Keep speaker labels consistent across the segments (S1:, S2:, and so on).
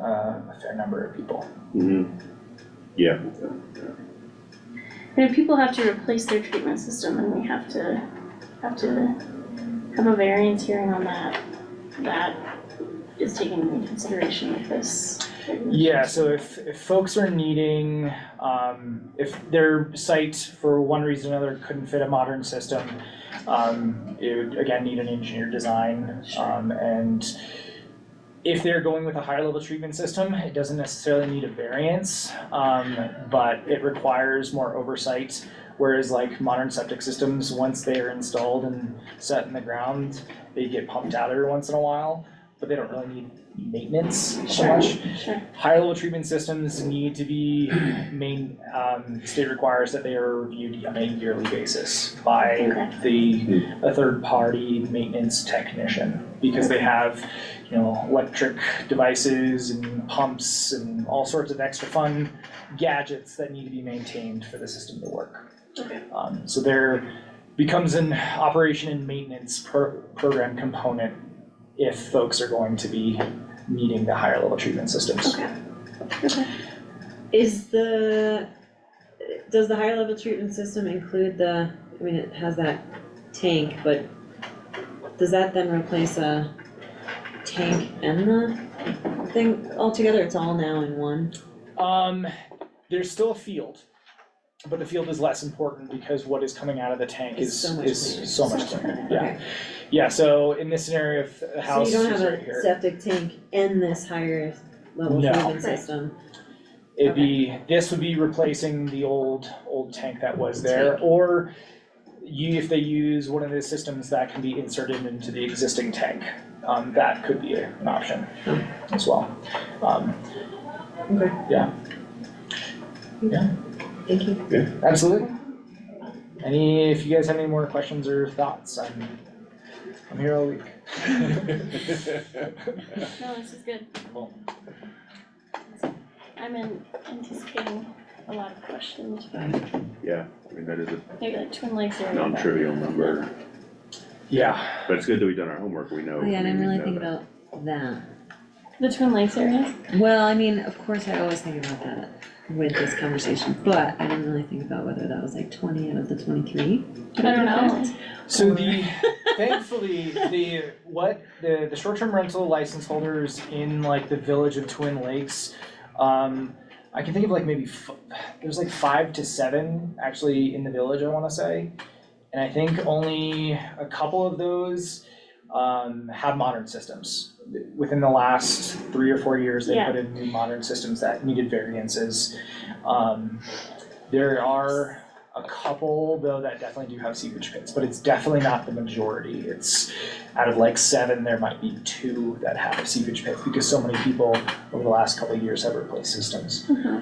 S1: uh, a fair number of people.
S2: Mm-hmm. Yeah.
S3: And if people have to replace their treatment system, then we have to, have to have a variance hearing on that. That is taken into consideration with this.
S1: Yeah, so if, if folks are needing, um, if their site for one reason or another couldn't fit a modern system, um, it would again need an engineered design, um, and if they're going with a higher level treatment system, it doesn't necessarily need a variance, um, but it requires more oversight. Whereas like modern septic systems, once they are installed and set in the ground, they get pumped out every once in a while, but they don't really need maintenance so
S3: Sure.
S1: much.
S3: Sure.
S1: Higher level treatment systems need to be main, um, state requires that they are reviewed on a yearly basis by
S3: Okay.
S1: the, a third party maintenance technician. Because they have, you know, electric devices and pumps and all sorts of extra fun gadgets that need to be maintained for the system to work.
S3: Okay.
S1: Um, so there becomes an operation and maintenance pro- program component if folks are going to be needing the higher level treatment systems.
S4: Is the, does the higher level treatment system include the, I mean, it has that tank, but does that then replace a tank and the thing altogether? It's all now in one?
S1: Um, there's still a field, but the field is less important because what is coming out of the tank
S4: It's
S1: is,
S4: so much cleaner.
S1: is so much cleaner, yeah.
S4: Okay.
S1: Yeah, so in this scenario, if the
S4: So
S1: house
S4: you
S1: is
S4: don't have
S1: right
S4: a
S1: here,
S4: septic tank in this higher level
S1: No.
S4: treatment
S3: Right.
S4: system?
S1: it'd be, this would be replacing the old, old tank that was there, or you, if they use one of the systems that can be inserted into the existing tank, um, that could be an option as well. Um,
S4: Hmm. Okay.
S1: Yeah. Yeah.
S4: Thank you.
S1: Absolutely. Any, if you guys have any more questions or thoughts, I'm, I'm here all week.
S3: No, this is good.
S1: Cool.
S3: I'm in- anticipating a lot of questions, but
S2: Yeah, I mean, that is a
S3: maybe like Twin Lakes area. but-
S2: non-trivial number,
S1: Yeah,
S2: but it's good that we've done our homework, we know.
S4: Oh, yeah, I
S2: we
S4: didn't really
S2: know
S4: think
S2: that.
S4: about that.
S3: The Twin Lakes area?
S4: Well, I mean, of course, I always think about that with this conversation, but I didn't really think about whether that was like twenty out of the twenty-three.
S3: I don't know.
S1: so the, thankfully, the, what, the, the short-term rental license holders in like the village of Twin Lakes, um, I can think of like maybe, f- there's like five to seven actually in the village, I wanna say. And I think only a couple of those, um, have modern systems. Within the last three or four years, they
S3: Yeah.
S1: put in new modern systems that needed variances. Um, there are a couple though that definitely do have seepage pits, but it's definitely not the majority. It's out of like seven, there might be two that have seepage pits because so many people over the last couple of years have replaced systems.
S3: Uh-huh.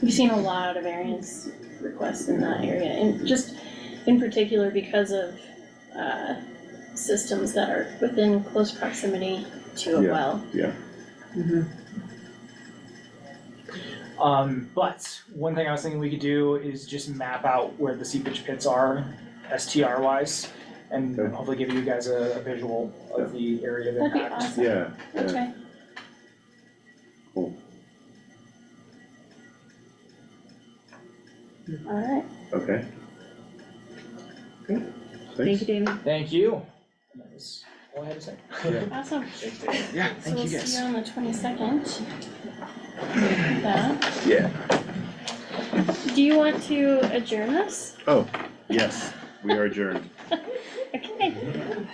S3: We've seen a lot of variance requests in that area, and just in particular because of, uh, systems that are within close proximity to a
S2: Yeah.
S3: well.
S4: Mm-hmm.
S1: Um, but one thing I was thinking we could do is just map out where the seepage pits are, STR wise, and
S2: Okay.
S1: hopefully give you guys a, a visual of the area of
S3: That'd
S1: impact.
S3: be awesome.
S2: Yeah, yeah,
S3: Okay,
S2: cool,
S3: alright.
S2: okay.
S4: Great. Thank
S2: Thanks.
S4: you, David.
S1: Thank you. That was all I had to say.
S2: Yeah.
S3: Awesome.
S1: Yeah,
S3: So we'll see you on the twenty-second. That.
S2: Yeah.
S3: Do you want to adjourn this?
S2: Oh, yes, we are adjourned.
S3: Okay.